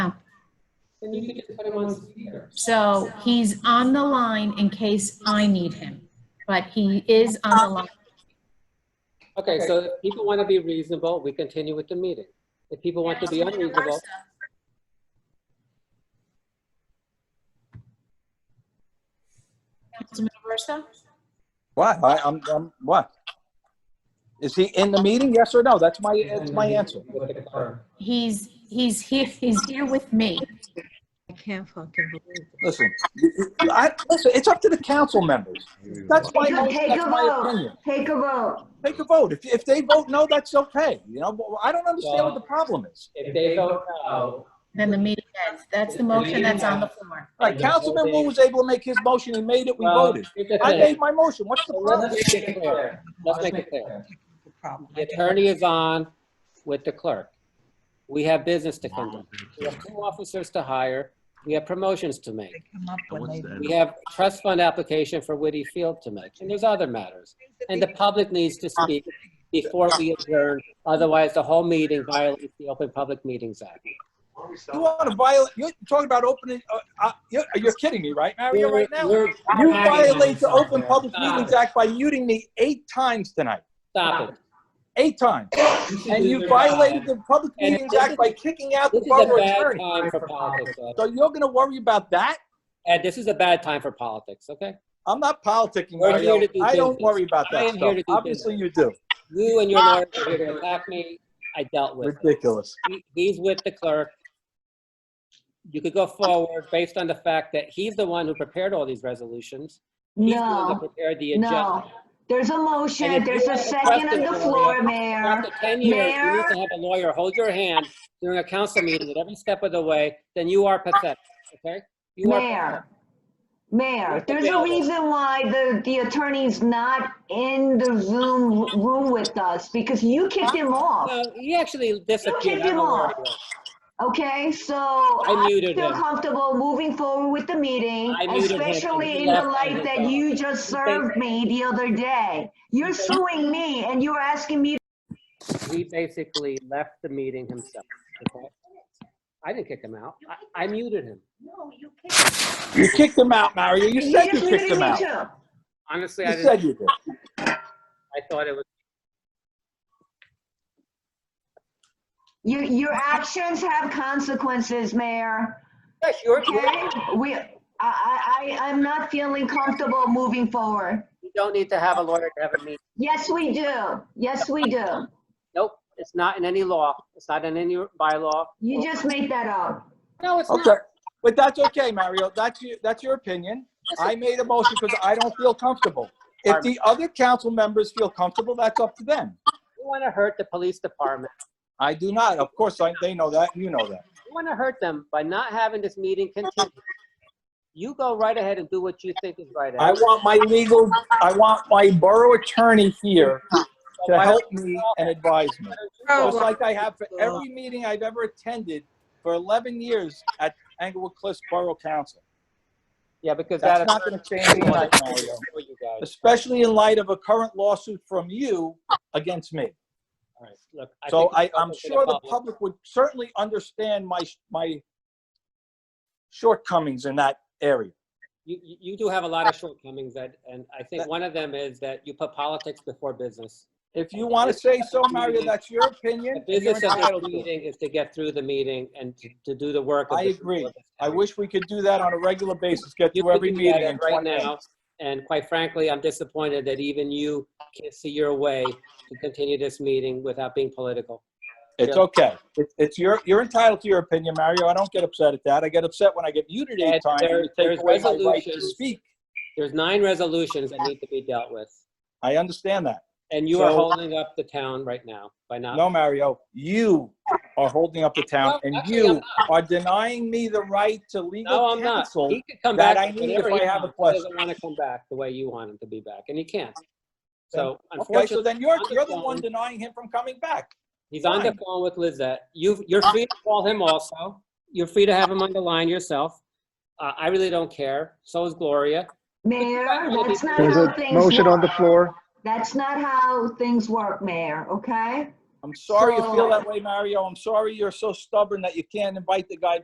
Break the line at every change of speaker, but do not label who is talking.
then you could just put him on speed either.
So he's on the line in case I need him, but he is on the line.
Okay, so if people want to be reasonable, we continue with the meeting. If people want to be unreasonable,
Councilman Aversa?
Why? I, I'm, I'm, what? Is he in the meeting? Yes or no? That's my, that's my answer.
He's, he's here, he's here with me.
I can't fucking believe it.
Listen, you- you- I, listen, it's up to the council members. That's my,
Take
that's
a
my
vote.
opinion.
Take a vote.
Take a vote. If, if they vote no, that's okay. You know, but I don't understand what the problem is.
if they vote no,
Then the meeting ends. That's the motion that's on the floor.
Like, Councilman Wu was able to make his motion. He made it. We
well,
voted.
here's the
I
thing.
made my motion. What's the
Well,
problem?
Let's make it clear. Let's make it clear.
The problem.
The attorney is on with the clerk. We have business to conduct. We have two officers to hire. We have promotions to make.
They come up when
What's
they.
the-
We have trust fund application for Whitty Field to make, and there's other matters. And the public needs to speak before we adjourn, otherwise the whole meeting violates the Open Public Meetings Act.
You want to violate, you're talking about opening, uh, uh, you're, you're kidding me, right, Mario, right now?
We're-
You violate the Open Public
Stop
Meetings
it.
Act by muting me eight times tonight,
Stop it.
eight times. And you violated the Public
And
Meetings
this
Act
is-
by kicking out the
This is a
borough
bad
attorney.
time for politics, Ed.
So you're going to worry about that?
Ed, this is a bad time for politics, okay?
I'm not politicking,
We're here to
Mario.
do
I don't
business.
worry about
I
that
am here
stuff.
to do
Obviously you do.
You and your lawyers are here to attack me. I dealt with it.
Ridiculous.
He- He's with the clerk. You could go forward based on the fact that he's the one who prepared all these resolutions. He's the one that
No,
prepared the agenda.
no. There's a
And
motion.
if
There's
you
a
have a
second on the
question,
floor,
Maria,
Mayor.
After 10 years, you need
Mayor?
to have a lawyer hold your hand during a council meeting at every step of the way, then you are pathetic, okay? You are
Mayor.
pathetic.
Mayor, there's a reason why the, the attorney's not in the Zoom room with us because you kicked him off,
No, He actually disappeared. I don't
him
know where
off.
he went.
okay? So
I
I
muted
feel
him.
comfortable moving forward with the meeting,
I muted him, and he
especially in the
left on
light
his
that
own.
you just served me the other day. You're suing me and you're asking me
He basically left the meeting himself, okay? I didn't kick him out. I- I muted him.
No, you kicked him.
You kicked him out, Mario. You
You
said you
just
kicked
muted
him
me
out.
too.
Honestly, I
You
didn't,
said you did.
I thought it was,
Your, your actions have consequences, Mayor.
yes, you're, you're-
Okay, we, I, I, I- I'm not feeling comfortable moving forward.
you don't need to have a lawyer to have a meeting.
Yes, we do. Yes, we do.
Nope, it's not in any law. It's not in any bylaw.
You just made that up.
No, it's
Okay,
not.
but that's okay, Mario. That's your, that's your opinion. I made a motion because I don't feel comfortable. If the other council members feel comfortable, that's up to them.
You want to hurt the police department.
I do not. Of course, I, they know that. You know that.
You want to hurt them by not having this meeting continue. You go right ahead and do what you think is right.
I
Ed.
want my legal, I want my borough attorney here to help me and advise me. Just like I have for every meeting I've ever attended for 11 years at Englewood Cliffs Borough Council.
Yeah, because that.
That's not going to change tonight, Mario,
For you guys.
especially in light of a current lawsuit from you against me.
All right, look, I
So
think
I,
it's
I'm
open to
sure the public would certainly understand my, my shortcomings in that area.
You, you you do have a lot of shortcomings, Ed, and I think
That-
one of them is that you put politics before business.
If you want to say so, Mario, that's your opinion.
The
and you're
business of
entitled
this
to it.
meeting is to get through the meeting and to, to do the work. of
I
this-
agree. I wish we could do that on a regular basis, get
You
through every
could do that
meeting in
right
20
now,
minutes.
and quite frankly, I'm disappointed that even you can't see your way to continue this meeting without being political.
It's
Yeah.
okay. It's- It's your, you're entitled to your opinion, Mario. I don't get upset at that. I get upset when I get muted
Ed,
eight times
there-
and you take
there's
away my right to
resolutions.
speak.
There's nine resolutions that need to be dealt with,
I understand that.
and you are
So-
holding up the town right now by not.
No, Mario, you are holding up the
No,
town and
actually, I'm
you
not.
are denying me the right to
No,
legal
I'm not.
counsel.
He could come
that
back.
I need
whenever he
if I have a
wants. He doesn't want to come back the way you want him to be back, and he can't. So
Okay, so
unfortunately,
then you're,
I'm
you're the
just
one
saying-
denying him from coming back.
he's on the
fine.
phone with Lizette. You, you're free to call him also. You're free to have him on the line yourself. Uh, I really don't care. So is Gloria.
Mayor, that's not
There's
how
a
things
motion on the
work.
floor.
That's not how things work, Mayor, okay?
I'm sorry you feel
So-
that way, Mario. I'm sorry you're so stubborn that you can't invite the guy